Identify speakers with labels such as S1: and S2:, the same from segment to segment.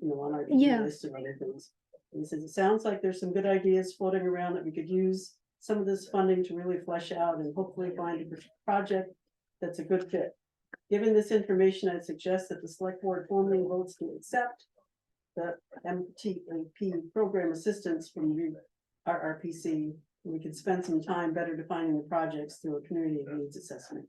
S1: you know, on our.
S2: Yeah.
S1: list and other things. And he says, it sounds like there's some good ideas floating around that we could use some of this funding to really flesh out and hopefully find a pr- project that's a good fit. Given this information, I'd suggest that the select board formally votes to accept the MTAP program assistance from you, RRPC. We could spend some time better defining the projects through a community of needs assessment.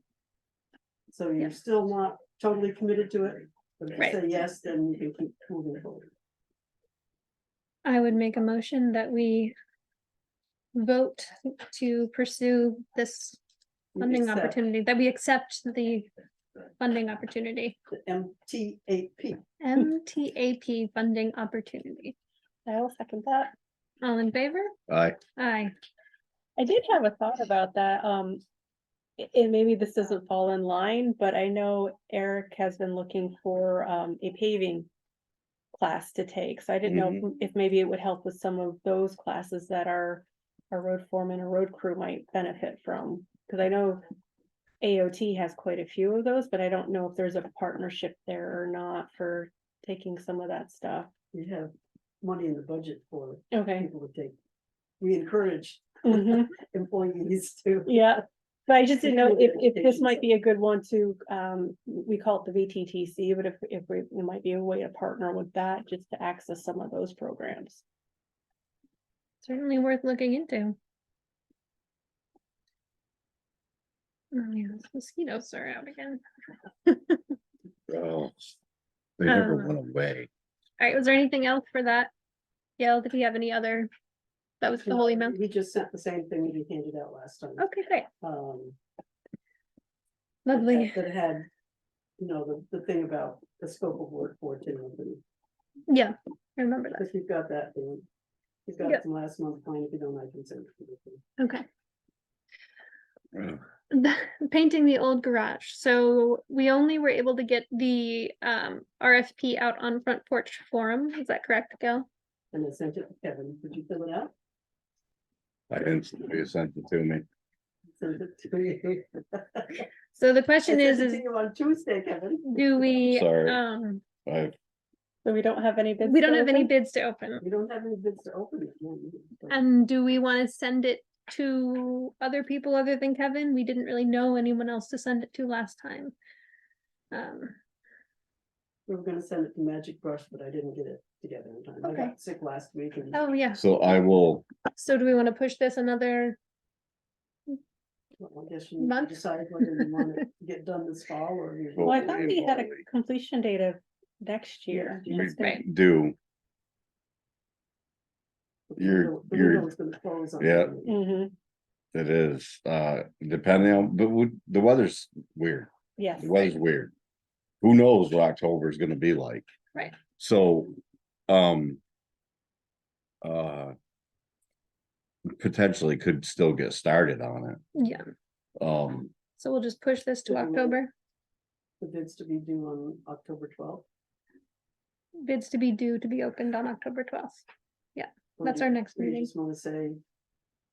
S1: So
S2: Yeah.
S1: you're still not totally committed to it, but if you
S2: Right.
S1: say yes, then you can keep moving forward.
S2: I would make a motion that we vote to pursue this
S1: You
S2: funding
S1: accept
S2: opportunity, that we accept the funding opportunity,
S1: the MTAP.
S2: MTAP funding opportunity.
S3: I will second that.
S2: All in favor?
S4: Aye.
S2: Aye.
S3: I did have a thought about that, um. a- And maybe this doesn't fall in line, but I know Eric has been looking for, um, a paving. Class to take, so I didn't know if- if maybe it would help with some of those classes that our, our road foreman or road crew might benefit from. Cause I know AOT has quite a few of those, but I don't know if there's a partnership there or not for taking some of that stuff.
S1: We have money in the budget for
S3: Okay.
S1: people to take. We encourage
S3: Mm-hmm.
S1: employees to.
S3: Yeah, but I just didn't know if,
S1: Particularly
S3: if this might
S1: vacations.
S3: be a good one to, um, we call it the VTTC, but if, if we, it might be a way to partner with that, just to access some of those programs.
S2: Certainly worth looking into. Oh, yeah, those mosquitoes are out again.
S4: Oh, They never
S2: Um,
S4: went away.
S2: All right, was there anything else for that? Gail, did we have any other? That was the whole Oh. email?
S1: We just sent the same thing we handed out last time.
S2: Okay, great.
S1: Um,
S2: Lovely.
S1: That had, you know, the, the thing about the scope of work for Timothy.
S2: Yeah, I remember that.
S1: If you've got that, then you've got
S2: Yep.
S1: some last month plan, if you don't, I can send it. to you.
S2: Okay.
S4: Ugh,
S2: Painting the old garage. So we only were able to get the um RFP out on Front Porch Forum. Is that correct, Gail?
S1: And I sent it to Kevin, Did you fill it out?
S4: I didn't, you sent it to me.
S1: Sent it to you.
S2: So the
S1: I
S2: question
S1: sent
S2: is,
S1: it to
S2: is
S1: you On Tuesday, Kevin.
S2: do we,
S4: Sorry.
S2: um,
S4: I,
S3: So we don't have any bids.
S2: we don't
S3: to
S2: have any
S3: open?
S2: bids to open.
S1: We don't have any bids to open it. no, we don't.
S2: And do we want to send it to other people other than Kevin? We didn't really know anyone else to send it to last time. Um,
S1: We were gonna send it to Magic Brush, but I didn't get it together in time. I
S2: Okay.
S1: got sick last week and
S2: oh, yeah.
S4: so I will,
S2: So do we want to push this another
S1: well, I guess you need to
S2: Month?
S1: decide whether you want to get done this fall or. you-
S4: Well,
S3: Well, I thought we had a
S4: Probably.
S3: completion date of next year.
S1: Yeah.
S3: That's gonna-
S2: Right.
S4: do,
S1: the
S4: you're-
S1: window- the
S4: you're-
S1: window's gonna close on
S4: yeah.
S1: Monday.
S3: Mhm,
S4: it is, uh, depending on, but we- the weather's weird.
S3: yes.
S4: The weather's weird. Who knows what October is gonna be like?
S2: Right.
S4: So, um. Uh. Potentially could still get started on it.
S2: Yeah,
S4: Um,
S2: so we'll just push this to
S1: Yeah, we'll-
S2: October,
S1: The bids to be due on October twelfth.
S2: bids to be due to be opened on October twelfth. That's our next
S1: I
S2: meeting.
S1: just wanna say,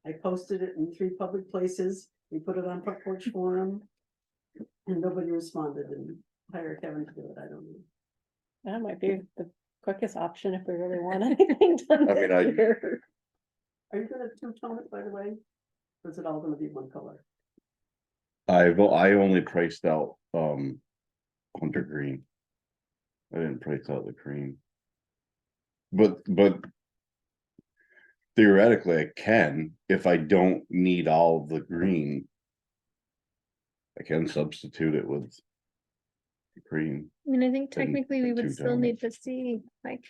S1: I posted it in three public places, we put it on Front Porch Forum. And nobody responded and hired Kevin to do it, I don't know.
S3: That might be the quickest option if we really want anything done
S4: I mean, I-
S3: this year.
S1: Are you gonna two-tone it, by the way? Or is it all gonna be one color?
S4: I've, o- I only priced out, um, Hunter Green. I didn't price out the cream. But, but. Theoretically, I can, if I don't need all the green. I can substitute it with. the Cream,
S2: I mean, I think
S4: Then-
S2: technically we
S4: then
S2: would
S4: two
S2: still
S4: down.
S2: need to see like.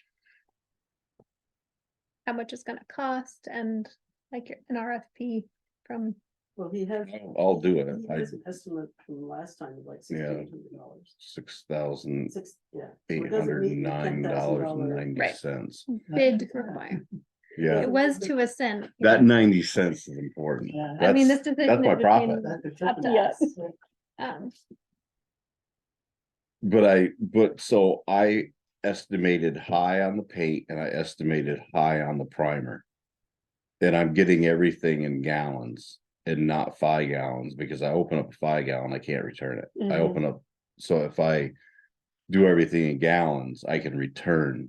S2: How much it's gonna cost and like an RFP from,
S1: Well, he has.
S4: I'll- I'll do it,
S1: He
S4: I,
S1: has an estimate from last time of like
S4: Yeah.
S1: sixteen hundred dollars.
S4: six thousand
S1: Six, yeah.
S4: eight
S1: doesn't
S4: hundred
S1: mean
S4: and
S1: the
S4: nine dollars and ninety cents,
S2: bid requirement.
S4: yeah,
S2: it was to a cent. you
S4: that
S2: know.
S4: ninety cents is important.
S1: Yeah.
S2: I mean,
S4: That's-
S2: this decision.
S4: my
S2: is
S4: profit.
S2: between, up to
S3: Yes.
S2: us. um,
S4: But I, but so I estimated high on the paint and I estimated high on the primer. And I'm getting everything in gallons and not five gallons because I open up a five gallon, I can't return it. I
S3: Mhm.
S4: open up, so if I do everything in gallons, I can return